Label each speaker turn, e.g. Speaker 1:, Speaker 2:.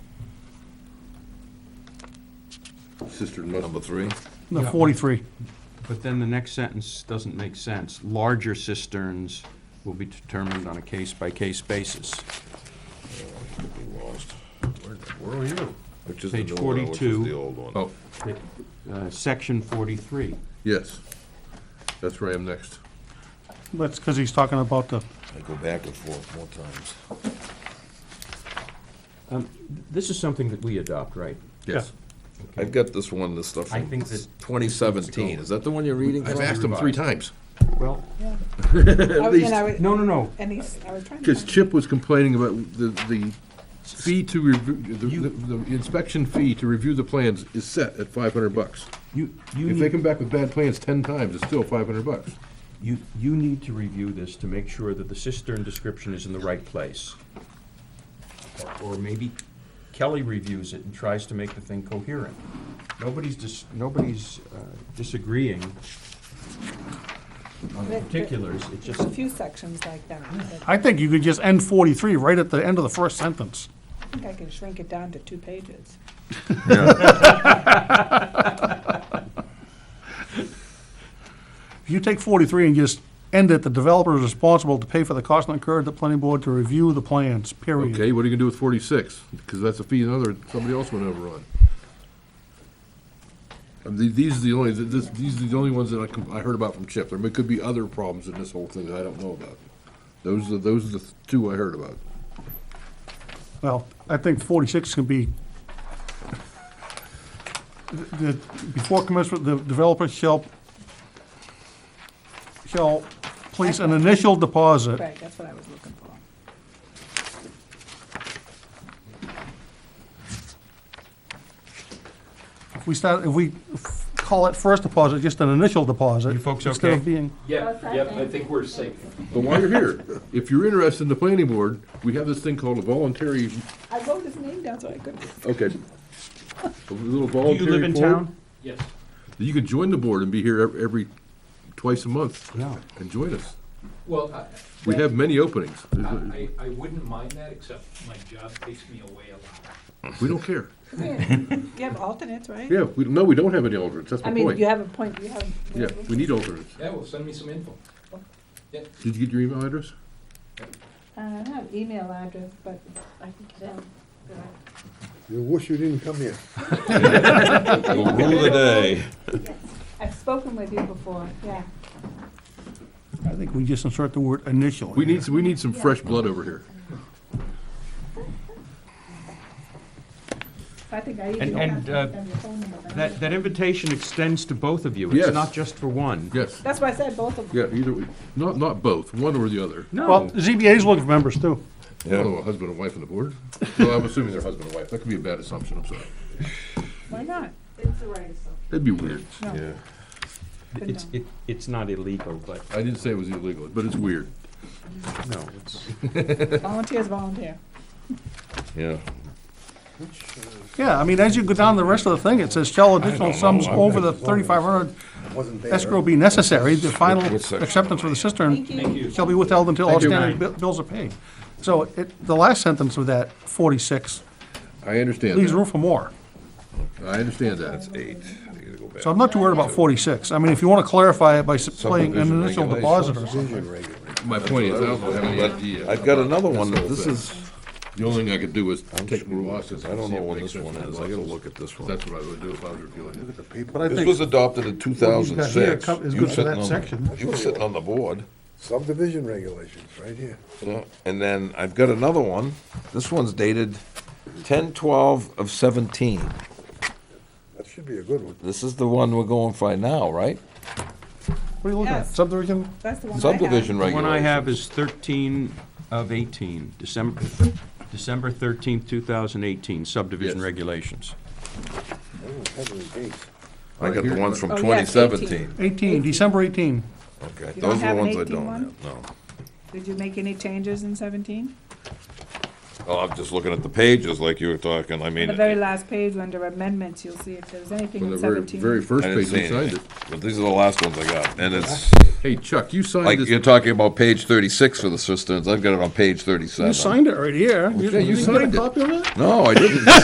Speaker 1: Cistern must.
Speaker 2: number three.
Speaker 3: No,
Speaker 4: Yeah.
Speaker 3: 43.
Speaker 4: But then the next sentence doesn't make sense. Larger cisterns will be determined on a case-by-case basis.
Speaker 2: Lost.
Speaker 1: Where- Where are you?
Speaker 2: Which is the
Speaker 4: Page
Speaker 2: new one, which is
Speaker 4: 42.
Speaker 2: the old one.
Speaker 1: Oh,
Speaker 4: Uh, Section 43.
Speaker 1: yes. That's where I am next.
Speaker 3: That's because he's talking about the,
Speaker 2: I go back and forth more times.
Speaker 4: Um, This is something that we adopt, right?
Speaker 1: Yes.
Speaker 2: I've got this one, this stuff
Speaker 4: I
Speaker 2: from
Speaker 4: think that-
Speaker 2: twenty seventeen. Is that the one you're reading?
Speaker 1: I've
Speaker 2: from?
Speaker 1: asked him three times.
Speaker 4: Well,
Speaker 5: Yeah.
Speaker 1: At
Speaker 5: I was-
Speaker 1: least,
Speaker 5: and I was-
Speaker 4: no, no, no.
Speaker 5: And he's, I was trying to.
Speaker 1: because
Speaker 5: find-
Speaker 1: Chip was complaining about the, the fee to review, the, the inspection fee to review the plans is set at five hundred bucks.
Speaker 4: You, you
Speaker 1: If they come
Speaker 4: need,
Speaker 1: back with bad plans ten times, it's still five hundred bucks.
Speaker 4: you, you need to review this to make sure that the cistern description is in the right place. Or- Or maybe Kelly reviews it and tries to make the thing coherent. Nobody's dis, nobody's uh, disagreeing on the
Speaker 5: But- but-
Speaker 4: particulars, it's just.
Speaker 5: There's a few sections like that. but
Speaker 3: I think you could just end 43 right at the end of the first sentence.
Speaker 5: I think I can shrink it down to two pages.
Speaker 3: If you take 43 and just end it, the developer is responsible to pay for the cost incurred, the planning board to review the plans, period.
Speaker 1: Okay, what are you gonna do with forty-six? Because that's a fee another, somebody else went over on. And the- these are the only, this, these are the only ones that I, com- I heard about from Chip. There may- could be other problems in this whole thing that I don't know about. Those are, those are the two I heard about.
Speaker 3: Well, I think 46 can be, the, before commencement, the developer shall, shall place an initial deposit
Speaker 5: Right, that's what I was looking for.
Speaker 3: If we start, if we f- call it first deposit, just an initial deposit.
Speaker 4: You folks
Speaker 3: Instead of
Speaker 4: okay?
Speaker 3: being,
Speaker 6: Yeah, yep, I think we're safe.
Speaker 1: But while you're here, if you're interested in the planning board, we have this thing called a voluntary,
Speaker 5: I wrote his name down so I could.
Speaker 1: okay. A little
Speaker 4: Do you
Speaker 1: voluntary.
Speaker 4: live in
Speaker 1: form.
Speaker 4: town?
Speaker 6: Yes.
Speaker 1: You can join the board and be here ev- every, twice a month
Speaker 4: Yeah.
Speaker 1: and join us.
Speaker 6: Well, I,
Speaker 1: We have many openings.
Speaker 6: I, I wouldn't mind that, except my job takes me away a lot.
Speaker 1: We don't care.
Speaker 5: Come here. You have alternates, right?
Speaker 1: Yeah, we, no, we don't have any alternates, that's
Speaker 5: I
Speaker 1: my
Speaker 5: mean, you
Speaker 1: point.
Speaker 5: have a point, you have.
Speaker 1: Yeah, we need alternates.
Speaker 6: Yeah, well, send me some info.
Speaker 1: Did you get your email address?
Speaker 5: Uh, I don't have email address, but I can get it.
Speaker 7: You wish you didn't come here.
Speaker 2: Rule of the day.
Speaker 5: I've spoken with you before, yeah.
Speaker 3: I think we just insert the word initial.
Speaker 1: We need, we need some fresh blood over here.
Speaker 5: I think I
Speaker 4: And-
Speaker 5: even
Speaker 4: and,
Speaker 5: have
Speaker 4: uh,
Speaker 5: have your phone number. but I
Speaker 4: That,
Speaker 5: don't-
Speaker 4: that invitation extends to both of you. It's
Speaker 1: Yes.
Speaker 4: not just for one.
Speaker 1: Yes,
Speaker 5: That's why I said both of them.
Speaker 1: yeah, either, we- not, not both, one or the other.
Speaker 3: Well,
Speaker 4: No,
Speaker 3: ZBA's looking for members too.
Speaker 1: Oh, a husband and wife on the board? Well, I'm assuming they're husband and wife, that could be a bad assumption, I'm sorry.
Speaker 5: Why not?
Speaker 1: That'd be weird.
Speaker 5: No.
Speaker 2: Yeah.
Speaker 4: it's, it, it's not illegal, but,
Speaker 1: I didn't say it was illegal, but it's weird.
Speaker 4: no, it's,
Speaker 5: Volunteers volunteer.
Speaker 2: Yeah.
Speaker 3: Yeah, I mean, as you go down the rest of the thing, it says shall additional sums over the thirty-five hundred
Speaker 7: Wasn't there.
Speaker 3: escrow be necessary, the final
Speaker 2: What section?
Speaker 3: acceptance for the cistern
Speaker 5: Thank you.
Speaker 3: shall be withheld until all
Speaker 1: Thank you.
Speaker 3: standing bi- bills are paid. So it, the last sentence of that forty-six
Speaker 1: I understand
Speaker 3: leaves room
Speaker 1: that,
Speaker 3: for more.
Speaker 1: I understand that.
Speaker 2: Eight. I gotta go back.
Speaker 3: So I'm not too worried about forty-six. I mean, if you want to clarify it by s- playing an
Speaker 2: Subdivision
Speaker 3: initial
Speaker 2: regulations.
Speaker 3: deposit or something.
Speaker 1: My point is, I don't have any idea.
Speaker 2: I've got another one,
Speaker 1: This whole
Speaker 2: this
Speaker 1: thing.
Speaker 2: is,
Speaker 1: The only thing I could do is
Speaker 2: I'm
Speaker 1: take
Speaker 2: screwed
Speaker 1: more
Speaker 2: up,
Speaker 1: losses.
Speaker 2: 'cause I don't
Speaker 1: and see
Speaker 2: know
Speaker 1: if it
Speaker 2: what
Speaker 1: makes
Speaker 2: this one
Speaker 1: sense.
Speaker 2: is, I gotta look at this one.
Speaker 1: That's what I would do if I was reviewing it.
Speaker 7: But I
Speaker 2: This was
Speaker 7: think
Speaker 2: adopted in two thousand
Speaker 7: got here
Speaker 2: six.
Speaker 7: co- is
Speaker 3: good for that section.
Speaker 2: You were sitting on the board.
Speaker 7: subdivision regulations, right here.
Speaker 2: Yeah, And then I've got another one. This one's dated ten twelve of seventeen.
Speaker 7: That should be a good one.
Speaker 2: This is the one we're going for now, right?
Speaker 3: What are you looking at?
Speaker 5: Yes.
Speaker 3: Subdivision?
Speaker 5: That's the one I have.
Speaker 2: Subdivision
Speaker 4: the one
Speaker 2: regulations.
Speaker 4: I have is thirteen of eighteen, December, December thirteenth, two thousand eighteen, subdivision
Speaker 1: Yes.
Speaker 4: regulations.
Speaker 7: Oh, heavily gates.
Speaker 2: I got the ones from
Speaker 5: Oh, yes,
Speaker 2: twenty
Speaker 5: 18.
Speaker 2: seventeen.
Speaker 3: Eighteen, December eighteen.
Speaker 2: Okay,
Speaker 5: You don't
Speaker 2: those are
Speaker 5: have
Speaker 2: the
Speaker 5: an
Speaker 2: ones I
Speaker 5: 18
Speaker 2: don't
Speaker 5: one?
Speaker 2: have, no.
Speaker 5: Did you make any changes in seventeen?
Speaker 2: Oh, I'm just looking at the pages like you were talking, I mean.
Speaker 5: The very last page under amendments, you'll see if there's anything
Speaker 1: On the
Speaker 5: in
Speaker 1: very,
Speaker 5: seventeen.
Speaker 1: very first
Speaker 2: I didn't
Speaker 1: page,
Speaker 2: see
Speaker 1: you signed
Speaker 2: anything,
Speaker 1: it.
Speaker 2: but these are the last ones I got, and it's,
Speaker 1: Hey Chuck, you
Speaker 2: like,
Speaker 1: signed
Speaker 2: you're
Speaker 1: this,
Speaker 2: talking about page thirty-six for the cisterns, I've got it on page thirty-seven.
Speaker 3: You signed it right here.
Speaker 1: Yeah, you
Speaker 3: didn't get a
Speaker 1: signed it.
Speaker 3: copy of it?
Speaker 2: No, I didn't.